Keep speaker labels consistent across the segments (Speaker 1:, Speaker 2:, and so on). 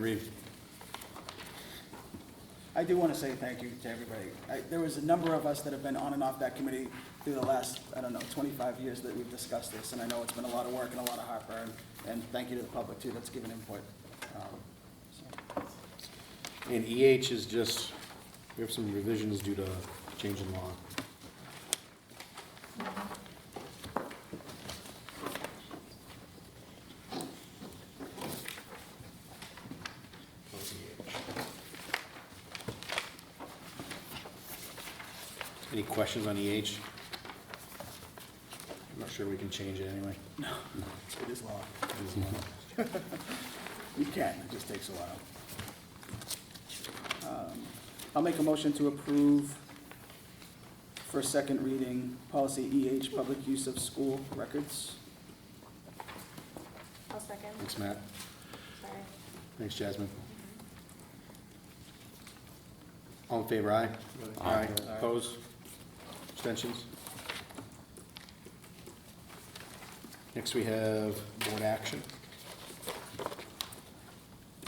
Speaker 1: Reeve.
Speaker 2: I do want to say thank you to everybody. I- There was a number of us that have been on and off that committee through the last, I don't know, 25 years that we've discussed this, and I know it's been a lot of work and a lot of heartburn, and thank you to the public, too, that's given input. Um, so,
Speaker 1: And EH is just, we have some revisions due to change in law. Any questions on EH? I'm not sure we can change it anyway.
Speaker 2: It is law. You can, it just takes a while. Um, I'll make a motion to approve for second reading, policy EH, public use of school records.
Speaker 3: I'll second,
Speaker 1: Thanks, Matt.
Speaker 3: sorry.
Speaker 1: Thanks, Jasmine. All in favor, aye? Aye. Opposed? Abstentions? Next, we have board action.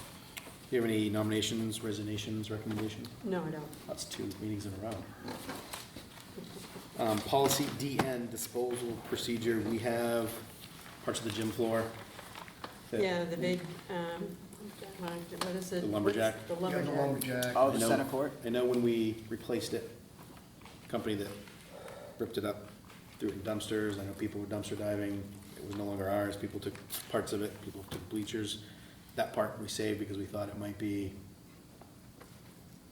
Speaker 1: Do you have any nominations, resignations, recommendations?
Speaker 4: No, I don't.
Speaker 1: That's two meetings in a row. Um, Policy DN, disposal procedure, we have parts of the gym floor. that-
Speaker 4: Yeah, the big, um, what is it?
Speaker 1: The lumberjack?
Speaker 4: What's The
Speaker 5: Yeah, the
Speaker 4: lumberjack.
Speaker 5: lumberjack.
Speaker 2: Oh, the
Speaker 1: I know-
Speaker 2: center court?
Speaker 1: I know when we replaced it, company that ripped it up, threw it in dumpsters, I know people were dumpster diving, it was no longer ours, people took parts of it, people took bleachers. That part we saved because we thought it might be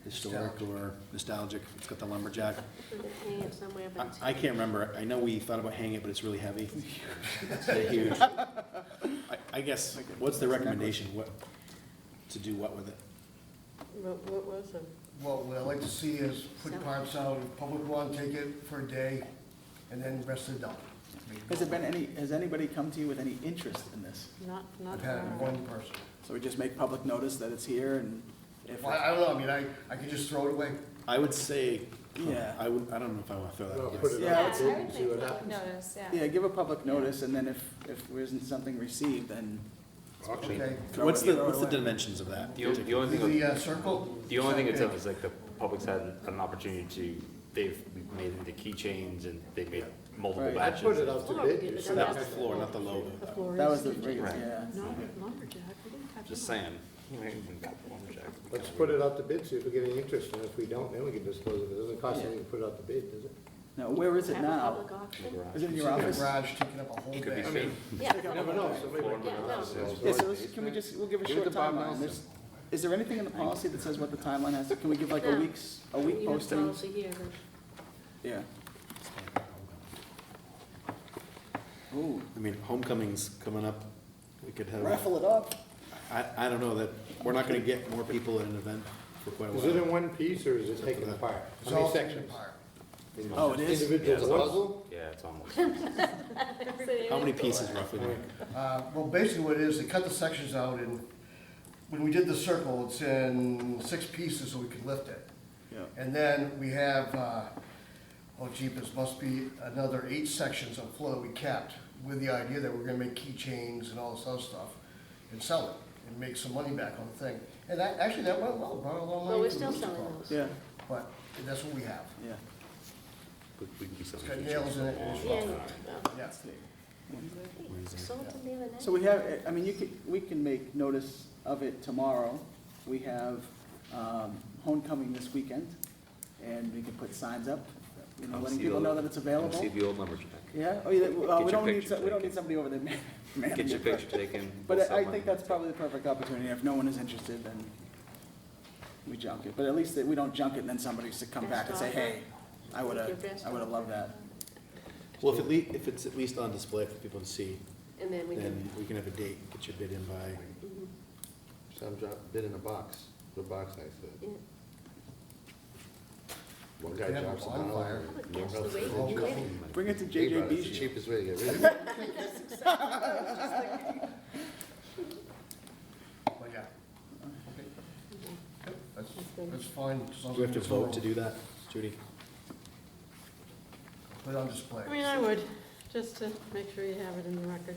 Speaker 1: historic or nostalgic, it's got the lumberjack.
Speaker 4: Did they hang it somewhere,
Speaker 1: I,
Speaker 4: but
Speaker 1: I can't remember, I know we thought about hanging it, but it's really heavy. It's huge. I, I guess, what's the recommendation, what, to do what with it?
Speaker 4: what, what was it?
Speaker 5: Well, what I'd like to see is put parts out, if public want, take it for a day, and then rest it down.
Speaker 2: Has there been any, has anybody come to you with any interest in this?
Speaker 4: Not, not.
Speaker 5: I've had
Speaker 4: far.
Speaker 5: one person.
Speaker 2: So we just make public notice that it's here and if,
Speaker 5: Well, I don't know, I mean, I, I could just throw it away.
Speaker 1: I would say,
Speaker 2: Yeah.
Speaker 1: I would, I don't know if I wanna throw that
Speaker 6: Well,
Speaker 1: away.
Speaker 6: put it
Speaker 2: Yeah,
Speaker 6: out
Speaker 2: it's-
Speaker 6: there and see what
Speaker 3: I would make
Speaker 6: happens.
Speaker 3: notice, yeah.
Speaker 2: yeah, give a public notice and then if, if there isn't something received, then
Speaker 6: Auction.
Speaker 5: Okay.
Speaker 2: throw
Speaker 1: What's
Speaker 2: it,
Speaker 1: the,
Speaker 2: throw it
Speaker 1: what's the
Speaker 2: away.
Speaker 1: dimensions of that?
Speaker 7: The only, the only
Speaker 5: The
Speaker 7: thing,
Speaker 5: uh, circle?
Speaker 7: the only thing it's of is like the public's had an opportunity to, they've made into keychains and they made multiple
Speaker 2: Right.
Speaker 6: I
Speaker 7: batches.
Speaker 6: put it out
Speaker 4: Floor,
Speaker 6: to
Speaker 4: we
Speaker 6: bid.
Speaker 4: did,
Speaker 6: you
Speaker 4: but
Speaker 6: said
Speaker 1: Not
Speaker 4: that's
Speaker 1: the floor, not the logo.
Speaker 4: The floor is.
Speaker 2: That was the,
Speaker 4: legit.
Speaker 2: yeah,
Speaker 7: Right.
Speaker 2: yeah.
Speaker 4: Not the lumberjack, we didn't touch.
Speaker 7: Just saying. You know, even got the lumberjack.
Speaker 6: Let's put it out to bid, see if we get any interest, and if we don't, then we can dispose of it. It doesn't cost anything to put it out to bid, does it?
Speaker 2: Now, where is
Speaker 4: Have
Speaker 2: it
Speaker 4: a
Speaker 2: now?
Speaker 4: public auction.
Speaker 7: Garage.
Speaker 2: Is it in your
Speaker 5: It's in the
Speaker 2: office?
Speaker 5: Garage taking up a whole
Speaker 7: Could be
Speaker 5: bay.
Speaker 7: seen.
Speaker 4: Yeah.
Speaker 6: You never know, somebody
Speaker 7: Floor
Speaker 6: might
Speaker 7: in
Speaker 6: get
Speaker 7: the garage.
Speaker 6: it.
Speaker 2: Yeah, so let's, can we just, we'll give a
Speaker 6: Give it
Speaker 2: short
Speaker 6: to Bob
Speaker 2: timeline. There's,
Speaker 6: Nelson.
Speaker 2: is there anything in the policy that says what the timeline has? to- Can we give like a
Speaker 4: No.
Speaker 2: week's, a
Speaker 4: You
Speaker 2: week
Speaker 4: have
Speaker 2: posting?
Speaker 4: policy here, but-
Speaker 2: Yeah. Ooh,
Speaker 1: I mean, homecoming's coming up, we could have,
Speaker 2: raffle it up.
Speaker 1: I, I don't know that, we're not gonna get more people at an event for quite a
Speaker 6: Is it in
Speaker 1: while.
Speaker 6: one piece, or is it taken apart?
Speaker 5: It's
Speaker 6: How
Speaker 5: all
Speaker 6: many
Speaker 5: taken
Speaker 6: sections?
Speaker 5: apart.
Speaker 2: Oh, it is?
Speaker 7: Yeah, it's
Speaker 6: Individual
Speaker 7: almost-
Speaker 6: puzzle?
Speaker 7: Yeah, it's almost.
Speaker 1: How many pieces roughly?
Speaker 5: Uh, Well, basically what it is, they cut the sections out, and when we did the circle, it's in six pieces so we could lift it.
Speaker 2: Yeah.
Speaker 5: And then we have, uh, oh jeepers, must be another eight sections of floor that we kept with the idea that we're gonna make keychains and all this other stuff and sell it and make some money back on the thing. And that, actually, that went well, brought a lot of money.
Speaker 4: Well, we're
Speaker 5: to the
Speaker 4: still
Speaker 5: Rooster
Speaker 4: selling
Speaker 5: Club.
Speaker 4: those.
Speaker 2: Yeah,
Speaker 5: But that's what we have.
Speaker 2: yeah.
Speaker 7: We we can be
Speaker 5: It's
Speaker 7: something.
Speaker 5: got nails in it. and it's-
Speaker 4: Yeah, you- well,
Speaker 5: Yeah.
Speaker 4: hey, sold them the other night.
Speaker 2: So we have, I mean, you could, we can make notice of it tomorrow. We have um, homecoming this weekend, and we can put signs up, you know,
Speaker 7: Come
Speaker 2: letting
Speaker 7: see
Speaker 2: people
Speaker 7: the-
Speaker 2: know that it's
Speaker 7: Come
Speaker 2: available.
Speaker 7: see the old lumberjack.
Speaker 2: Yeah, oh, yeah, well,
Speaker 7: Get
Speaker 2: we
Speaker 7: your
Speaker 2: don't need,
Speaker 7: picture
Speaker 2: so- we don't need
Speaker 7: taken.
Speaker 2: somebody over there man- managing
Speaker 7: Get your
Speaker 2: it,
Speaker 7: picture taken.
Speaker 2: But
Speaker 7: we'll
Speaker 2: I-
Speaker 7: sell
Speaker 2: I
Speaker 7: one.
Speaker 2: think that's probably the perfect opportunity. If no one is interested, then we junk it. But at least that we don't junk it, and then somebody should come back and say,
Speaker 4: Best offer.
Speaker 2: hey, I
Speaker 4: Your
Speaker 2: would've,
Speaker 4: best
Speaker 2: I would've loved that.
Speaker 1: Well, if it le, if it's at least on display for people to see,
Speaker 4: And then we
Speaker 1: then
Speaker 4: can, mm-hmm,
Speaker 1: we can have a date, get your bid in by,
Speaker 6: Some drop, bid in a box, the box I said.
Speaker 4: yeah,
Speaker 6: One
Speaker 5: They
Speaker 6: guy
Speaker 5: have a
Speaker 6: drops a bottle.
Speaker 5: bonfire.
Speaker 6: and
Speaker 4: I would
Speaker 6: no
Speaker 4: guess
Speaker 6: one
Speaker 4: the
Speaker 6: else
Speaker 4: way
Speaker 6: does.
Speaker 4: you did it.
Speaker 2: Bring it to
Speaker 6: Think about it, it's the
Speaker 2: JJB.
Speaker 6: Cheapest way to get rid of it.
Speaker 5: But yeah. Okay.
Speaker 4: Okay.
Speaker 5: Yep, That's,
Speaker 4: good.
Speaker 5: that's fine. as long
Speaker 1: do we have
Speaker 5: as
Speaker 1: to
Speaker 5: it's
Speaker 1: vote to
Speaker 5: all
Speaker 1: do that, Judy?
Speaker 5: Put it on display.
Speaker 4: I mean, I would, just to make sure you have it in the record.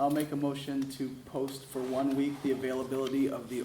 Speaker 2: I'll make a motion to post for one week the availability of the